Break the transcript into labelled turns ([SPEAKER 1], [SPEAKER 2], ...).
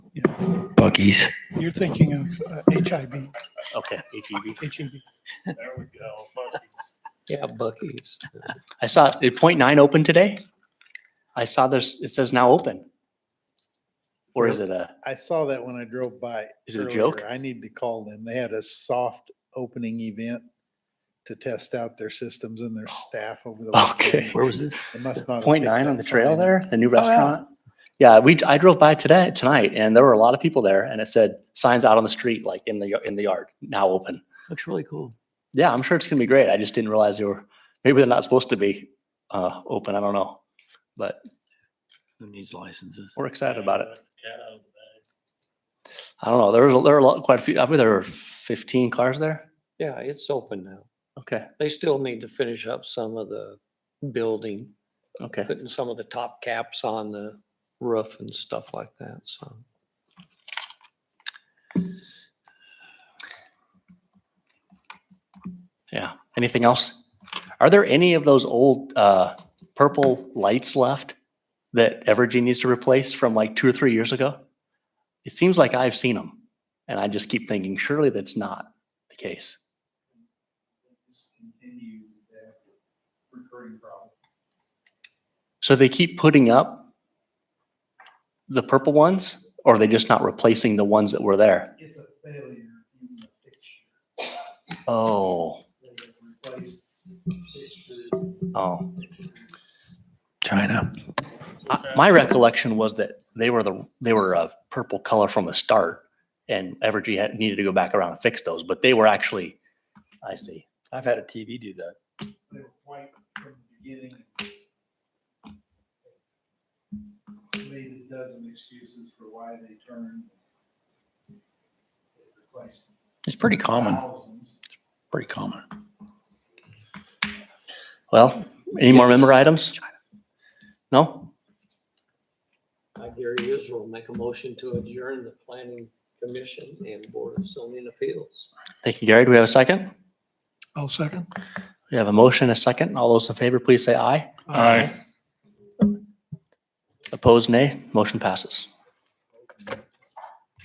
[SPEAKER 1] monkeys.
[SPEAKER 2] You're thinking of uh, HIB,
[SPEAKER 3] Okay, HEB.
[SPEAKER 2] HEB.
[SPEAKER 4] There we go. monkeys.
[SPEAKER 5] Yeah, Bucky's.
[SPEAKER 3] I saw, did point nine open today? I saw this, it says now open. Or is it a,
[SPEAKER 6] I saw that when I drove by.
[SPEAKER 3] Is it a
[SPEAKER 6] earlier.
[SPEAKER 3] joke?
[SPEAKER 6] I need to call them. They had a soft opening event to test out their systems and their staff over the.
[SPEAKER 3] Oh. Okay.
[SPEAKER 6] weekend.
[SPEAKER 1] Where was this?
[SPEAKER 6] They must not. have
[SPEAKER 3] point
[SPEAKER 6] picked
[SPEAKER 3] nine on
[SPEAKER 6] that
[SPEAKER 3] the trail
[SPEAKER 6] sign.
[SPEAKER 3] there, the new restaurant? Yeah, we, I drove by today, tonight, and there were a lot of people there and it said signs out on the street, like in the, y- in the yard, now open.
[SPEAKER 1] Looks really cool.
[SPEAKER 3] Yeah, I'm sure it's gonna be great. I just didn't realize they were, maybe they're not supposed to be, uh, open. I don't know. But
[SPEAKER 1] Who needs licenses?
[SPEAKER 3] we're excited about it.
[SPEAKER 4] Cat out of the bag.
[SPEAKER 3] I don't know. There was, there were a lot, quite a few, I believe there were fifteen cars there.
[SPEAKER 5] Yeah, it's open now.
[SPEAKER 3] Okay,
[SPEAKER 5] They still need to finish up some of the building,
[SPEAKER 3] okay.
[SPEAKER 5] putting some of the top caps on the roof and stuff like that, so.
[SPEAKER 3] Yeah. Anything else? Are there any of those old uh, purple lights left that Evergy needs to replace from like two or three years ago? It seems like I've seen them, and I just keep thinking, surely that's not the case.
[SPEAKER 6] Just Continue that recurring problem.
[SPEAKER 3] So they keep putting up the purple ones, or are they just not replacing the ones that were there?
[SPEAKER 6] It's a failure in the picture.
[SPEAKER 3] Oh,
[SPEAKER 6] They have replaced pictures.
[SPEAKER 3] oh.
[SPEAKER 1] China.
[SPEAKER 3] I- Uh, My recollection was that they were the they were a purple color from the start, and Evergy had needed to go back around and fix those, but they were actually. I see.
[SPEAKER 1] I've had a TV do that.
[SPEAKER 6] They were white from the beginning. Made a dozen excuses for why they turned. They replaced
[SPEAKER 1] It's pretty common,
[SPEAKER 6] thousands.
[SPEAKER 1] pretty common.
[SPEAKER 3] Well, any more member items? No?
[SPEAKER 5] I, Gary Israel, make a motion to adjourn the planning commission and board of zoning appeals.
[SPEAKER 3] Thank you, Gary. Do we have a second?
[SPEAKER 2] I'll second.
[SPEAKER 3] We have a motion, a second. All those in favor, please say aye.
[SPEAKER 4] Aye.
[SPEAKER 3] Opposed, nay. Motion passes.